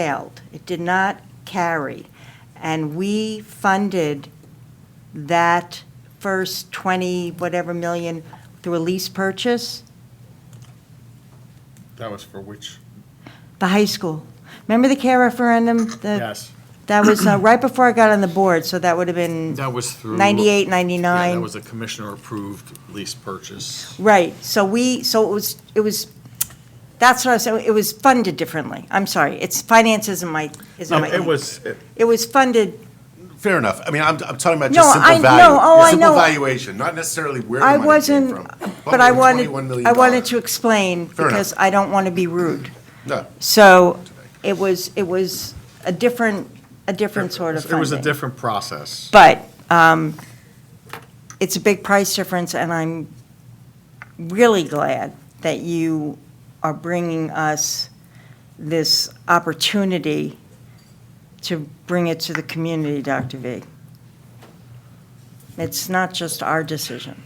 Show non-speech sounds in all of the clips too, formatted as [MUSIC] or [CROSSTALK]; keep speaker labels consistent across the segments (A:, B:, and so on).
A: failed. It did not carry. And we funded that first 20, whatever million through a lease purchase,
B: That was for which?
A: the high school. Remember the care referendum? The-
B: Yes.
A: That was uh, right before I got on the board, so that would have been
B: That was through.
A: 98,
B: Yeah,
A: 99.
B: that was a commissioner-approved lease purchase.
A: Right, so we, so it was, it was, that's what I was saying, it was funded differently. I'm sorry, it's, finance isn't my, isn't
C: No,
A: my.
C: it
A: thing.
C: was- it-
A: It was funded,
C: Fair enough. I mean, I'm, I'm talking about
A: No,
C: just simple
A: I- no,
C: value.
A: oh, I
C: simple
A: know.
C: valuation, not necessarily where the
A: I
C: money came
A: wasn't,
C: from.
A: but I wanted,
C: $121 million.
A: I wanted to explain
C: Fair enough.
A: because I don't want to be rude.
C: No,
A: So it was, it was a different, a different sort of
B: It was a
A: funding.
B: different process.
A: But um, it's a big price difference, and I'm really glad that you are bringing us this opportunity to bring it to the community, Dr. V. It's not just our decision.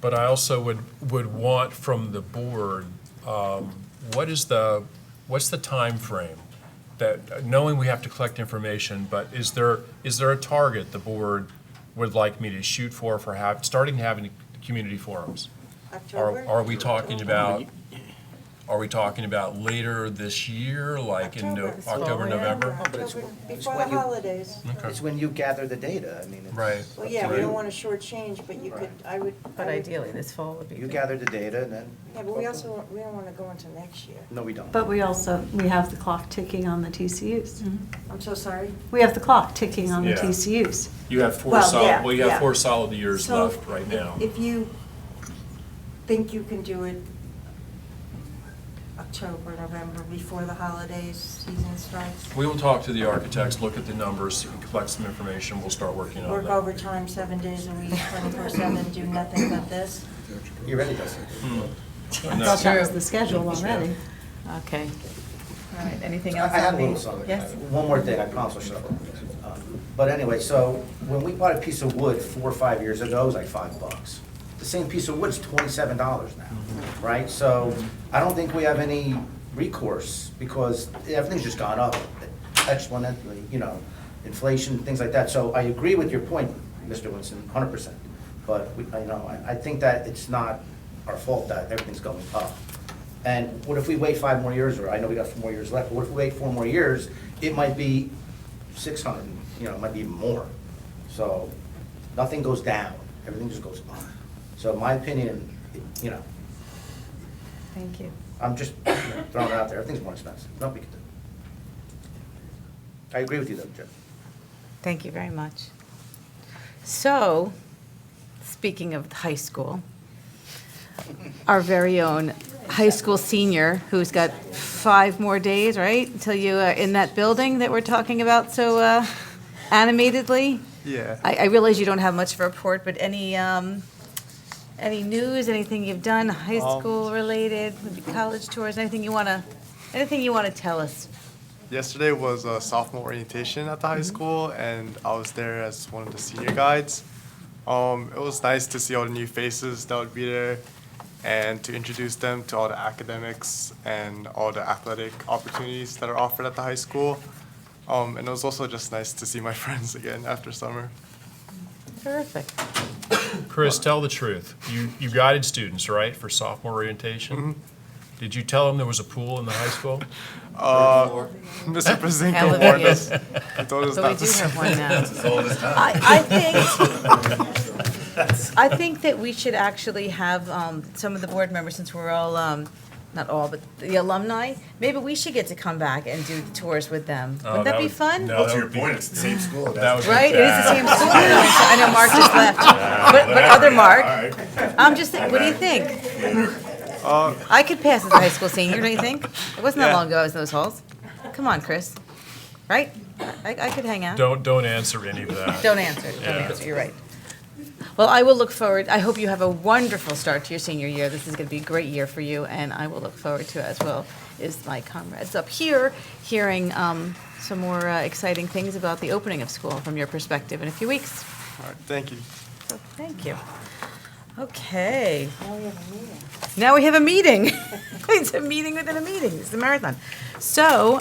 D: But I also would, would want from the board, um, what is the, what's the timeframe? That, knowing we have to collect information, but is there, is there a target the board would like me to shoot for, for have, starting having community forums? Are, are we talking about, are we talking about later this year, like in no-
A: October.
D: October, November?
A: Before
E: when
A: the
E: you-
A: holidays.
D: Okay.
E: It's when you gather the data, I mean, it's.
D: Right.
A: Well, yeah, we
D: Right.
A: don't want to shortchange, but you could, I would. I
F: But
A: would-
F: ideally, this fall would be.
E: You
F: good.
E: gather the data and then.
A: Yeah, but we also, we don't want to go into next year.
E: No, we don't.
G: But we also, we have the clock ticking on the TCUs.
A: I'm so sorry.
G: We have the clock ticking on the
D: Yeah.
G: TCUs.
D: You have four
A: Well, yeah,
D: solid, well, you
A: yeah.
D: have four solid years
A: So
D: left right
A: if-
D: now.
A: If you think you can do it October, November, before the holidays, season starts,
D: We will talk to the architects, look at the numbers, collect some information, we'll start working on
A: work
D: that.
A: overtime seven days a week, 24/7, do nothing but this.
E: You ready, Dustin?
G: I
D: And
G: thought
D: that's-
G: that was the schedule already.
F: Okay. All right, anything
E: I I
F: else?
E: had a
F: on the-
E: little something.
F: Yes?
E: One more thing, I promise I'll shut up. Um, But anyway, so when we bought a piece of wood four or five years ago, it was like five bucks. The same piece of wood's twenty-seven dollars now,
D: Mm-hmm.
E: right? So I don't think we have any recourse because everything's just gone up exponentially, you know, inflation, things like that. So I agree with your point, Mr. Winston, hundred percent. But we, I know, I, I think that it's not our fault that everything's going up. And what if we wait five more years, or I know we got four more years left, but what if we wait four more years, it might be six hundred, you know, it might be even more. So, nothing goes down, everything just goes up. So in my opinion, it- you know,
F: Thank you.
E: I'm just you know, throwing it out there, everything's more expensive, nothing we can do. I agree with you though, Jim.
F: Thank you very much. So, speaking of the high school, our very own high school senior, who's got five more days, right, until you are in that building that we're talking about so uh, animatedly? Yeah. I, I realize you don't have much of a report, but any, um, any news, anything you've done, high school related, maybe college tours, anything you want to, anything you want to tell us?
H: Yesterday was a sophomore orientation at the
F: Mm-hmm.
H: high school, and I was there as one of the senior guides. Um, it was nice to see all the new faces that would be there and to introduce them to all the academics and all the athletic opportunities that are offered at the high school. Um, and it was also just nice to see my [LAUGHS] friends again after summer.
F: Terrific.
D: Chris, tell the truth. You, you guided students, right, for sophomore orientation? Did you tell them there was a pool in the high school?
H: Uh, [LAUGHS]
F: [LAUGHS]
H: Mr. Pazinko
F: Hallelujah.
H: warned us. He told us
F: So we
H: not
F: do
H: to say.
F: have one now. I, I think, I think that we should actually have um, some of the board members, since we're all, um, not all, but the alumni, maybe we should get to come back and do tours with them.
D: Oh,
F: Wouldn't that be
D: would-
F: fun?
D: no, that would be-
C: it's the same school.
D: That would be
F: Right? It is the same school. I know Mark
D: [LAUGHS]
F: just left, but, but other Mark. I'm just, thinking, what do you think? I could pass as a high school senior, don't you think? It wasn't that
H: Yeah.
F: long ago I was in those halls. Come on, Chris. Right? I, I could hang out.
D: Don't, don't answer any of
F: [LAUGHS]
D: that.
F: Don't answer, don't
D: Yeah.
F: answer, you're right. Well, I will look forward, I hope you have a wonderful start to your senior year. This is going to be a great year for you, and I will look forward to it as well, is my comrades up here, hearing um, some more uh, exciting things about the opening of school from your perspective in a few weeks.
H: All right, thank you.
F: So, Thank you. Okay. [LAUGHS] Now we have a meeting. It's a meeting within a meeting. It's the marathon. So,